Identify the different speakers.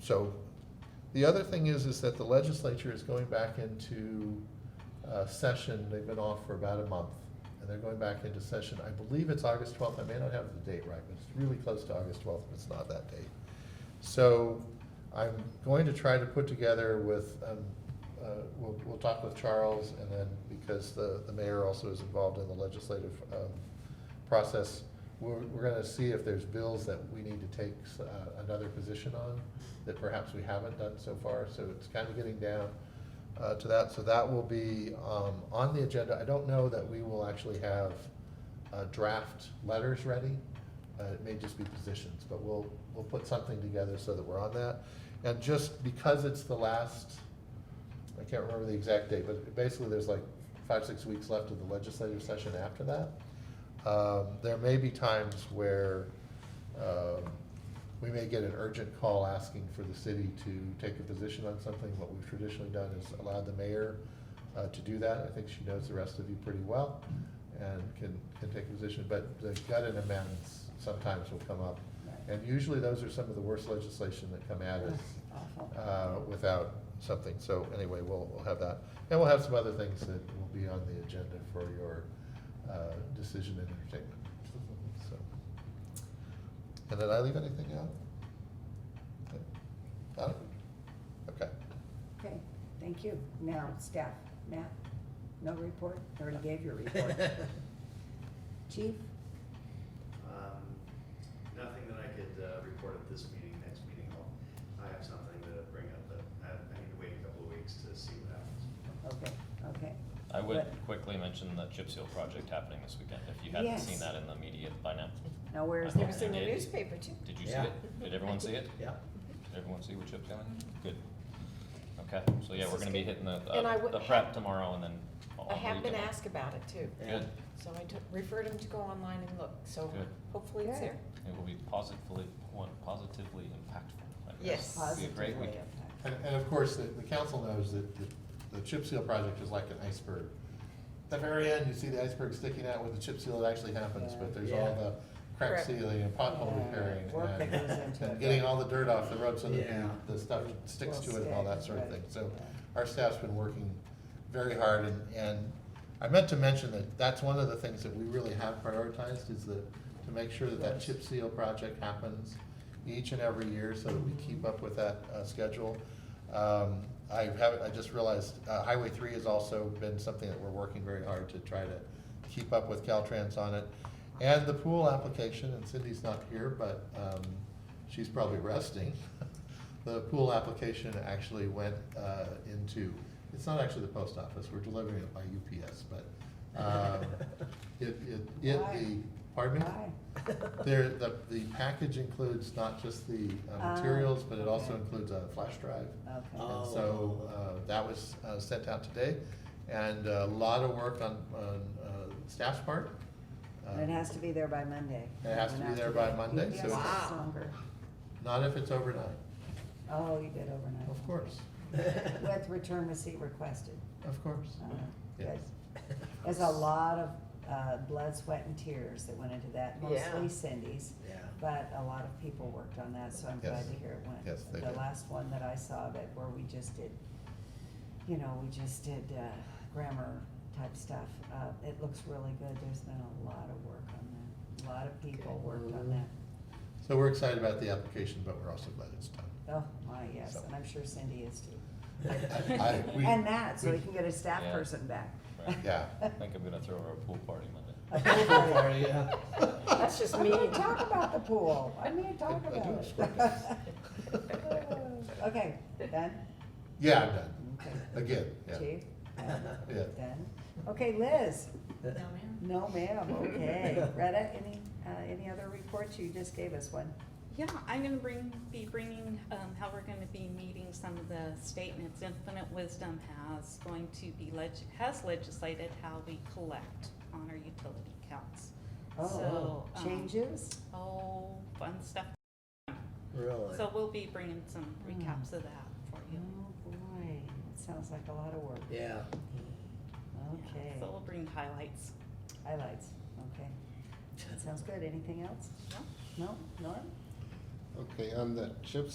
Speaker 1: So the other thing is, is that the legislature is going back into uh, session. They've been off for about a month. And they're going back into session. I believe it's August 12th. I may not have the date right, but it's really close to August 12th, but it's not that date. So I'm going to try to put together with, um, uh, we'll, we'll talk with Charles and then, because the, the mayor also is involved in the legislative um, process, we're, we're gonna see if there's bills that we need to take s- uh, another position on that perhaps we haven't done so far, so it's kind of getting down uh, to that. So that will be um, on the agenda. I don't know that we will actually have uh, draft letters ready. Uh, It may just be positions, but we'll, we'll put something together so that we're on that. And just because it's the last, I can't remember the exact date, but basically there's like five, six weeks left of the legislative session after that. Um, There may be times where um, we may get an urgent call asking for the city to take a position on something. What we've traditionally done is allowed the mayor uh, to do that. I think she knows the rest of you pretty well and can, can take a position, but the gut and amendments sometimes will come up. And usually those are some of the worst legislation that come at us uh, without something. So anyway, we'll, we'll have that. And we'll have some other things that will be on the agenda for your uh, decision and entertainment. So, And did I leave anything out? I don't- Okay.
Speaker 2: Okay, thank you. Now, staff, Matt, no report? Already gave your report. Chief,
Speaker 3: Um, Nothing that I could uh, report at this meeting, next meeting, I'll, I have something to bring up, but I, I need to wait a couple of weeks to see what happens.
Speaker 2: okay, okay.
Speaker 4: I would
Speaker 2: But-
Speaker 4: quickly mention the chip seal project happening this weekend, if you hadn't
Speaker 2: Yes.
Speaker 4: seen that in the media by now.
Speaker 2: Now, where is
Speaker 4: I've
Speaker 2: that?
Speaker 5: It was in the
Speaker 4: Yeah.
Speaker 5: newspaper too.
Speaker 4: Did you see
Speaker 6: Yeah.
Speaker 4: it? Did everyone see it?
Speaker 6: Yeah.
Speaker 4: Did everyone see what chip sealing? Good. Okay, so yeah,
Speaker 5: This
Speaker 4: we're
Speaker 5: is
Speaker 4: gonna be
Speaker 5: good.
Speaker 4: hitting the,
Speaker 5: And I
Speaker 4: uh,
Speaker 5: would-
Speaker 4: the prep tomorrow and then all
Speaker 5: I have been
Speaker 4: weekend.
Speaker 5: asked about it too,
Speaker 6: Yeah.
Speaker 4: Good,
Speaker 5: so I took, referred him to go online and look, so
Speaker 4: Good.
Speaker 5: hopefully it's
Speaker 2: Good.
Speaker 5: there.
Speaker 4: it will be positively, positively impactful. I guess.
Speaker 5: Yes.
Speaker 4: It'll Be a great
Speaker 2: Positively
Speaker 4: weekend.
Speaker 2: impacted.
Speaker 1: And, and of course, the, the council knows that the, the chip seal project is like an iceberg. At the very end, you see the iceberg sticking out where the chip seal actually happens, but there's all
Speaker 6: Yeah.
Speaker 1: the crack
Speaker 5: Correct.
Speaker 1: sealing and pothole
Speaker 2: Yeah,
Speaker 1: repairing.
Speaker 2: work that
Speaker 1: and-
Speaker 2: goes into
Speaker 1: And
Speaker 2: it.
Speaker 1: getting all the dirt off the road so that
Speaker 6: Yeah.
Speaker 1: the, the stuff sticks to
Speaker 2: Well,
Speaker 1: it and all that
Speaker 2: stick,
Speaker 1: sort of
Speaker 2: right,
Speaker 1: thing. So
Speaker 2: yeah.
Speaker 1: our staff's been working very hard and, and I meant to mention that that's one of the things that we really have prioritized is that, to make sure that that
Speaker 2: Yes.
Speaker 1: chip seal project happens each and every year so that we keep up with that, uh, schedule. Um, I haven't, I just realized, uh, Highway three has also been something that we're working very hard to try to keep up with Caltrans on it. And the pool application, and Cindy's not here, but, um, she's probably resting. The pool application actually went, uh, into, it's not actually the post office, we're delivering it by UPS, but, um, it, it, it, the,
Speaker 2: Why?
Speaker 1: pardon me?
Speaker 2: Why?
Speaker 1: There, the, the package includes not just the uh,
Speaker 2: Ah,
Speaker 1: materials, but it also
Speaker 2: okay.
Speaker 1: includes a flash drive.
Speaker 2: Okay,
Speaker 6: Oh.
Speaker 1: And so, uh, that was uh, sent out today, and a lot of work on, on uh, staff's part.
Speaker 2: And it has to be there by Monday.
Speaker 1: It has to be
Speaker 2: Went out
Speaker 1: there by
Speaker 2: today.
Speaker 1: Monday,
Speaker 2: Yes,
Speaker 1: so-
Speaker 2: it's
Speaker 5: Wow.
Speaker 2: longer.
Speaker 1: Not if it's overnight,
Speaker 2: Oh, you did
Speaker 1: of
Speaker 2: overnight.
Speaker 1: course,
Speaker 2: With return receipt requested.
Speaker 1: of course.
Speaker 2: Uh,
Speaker 1: Yes.
Speaker 2: good. There's a lot of uh, blood, sweat, and tears that went into that,
Speaker 5: Yeah.
Speaker 2: mostly Cindy's.
Speaker 6: Yeah.
Speaker 2: But a lot of people worked on that, so I'm glad
Speaker 1: Yes.
Speaker 2: to hear it went.
Speaker 1: Yes, they
Speaker 2: The
Speaker 1: did.
Speaker 2: last one that I saw that, where we just did, you know, we just did uh, grammar type stuff, uh, it looks really good. There's been a lot of work on that. A lot of people worked on that.
Speaker 1: So we're excited about the application, but we're also glad it's done.
Speaker 2: Oh, my, yes,
Speaker 1: So-
Speaker 2: and I'm sure Cindy is too.
Speaker 1: I- I- we-
Speaker 2: And that, so we
Speaker 1: we-
Speaker 2: can get a staff
Speaker 4: Yeah.
Speaker 2: person back.
Speaker 4: Right.
Speaker 1: Yeah.
Speaker 4: I think I'm gonna throw her a pool party Monday.
Speaker 2: A pool party.
Speaker 6: Yeah.
Speaker 5: That's just
Speaker 2: I'm
Speaker 5: me.
Speaker 2: gonna talk about the pool, I'm gonna talk
Speaker 1: I do
Speaker 2: about it. Okay, done?
Speaker 1: Yeah, I'm done,
Speaker 2: Okay.
Speaker 1: again, yeah.
Speaker 2: Chief?
Speaker 1: Yeah.
Speaker 2: Done? Okay, Liz? No, ma'am, okay. Retta, any, uh, any other reports? You just gave us one.
Speaker 7: Yeah, I'm gonna bring, be bringing, um, how we're gonna be meeting some of the statements Infinite Wisdom has going to be leg, has legislated how we collect on our utility counts.
Speaker 2: Oh,
Speaker 7: So, um,
Speaker 2: changes?
Speaker 7: Oh, fun stuff.
Speaker 6: Really?
Speaker 7: So we'll be bringing some recaps of that for
Speaker 2: Oh,
Speaker 7: you.
Speaker 2: boy, that sounds like a lot of work.
Speaker 6: Yeah.
Speaker 7: Yeah,
Speaker 2: Okay,
Speaker 7: So we'll bring highlights.
Speaker 2: highlights, okay. Sounds good. Anything else?
Speaker 7: No?
Speaker 2: No? Norm?
Speaker 8: Okay, on the chip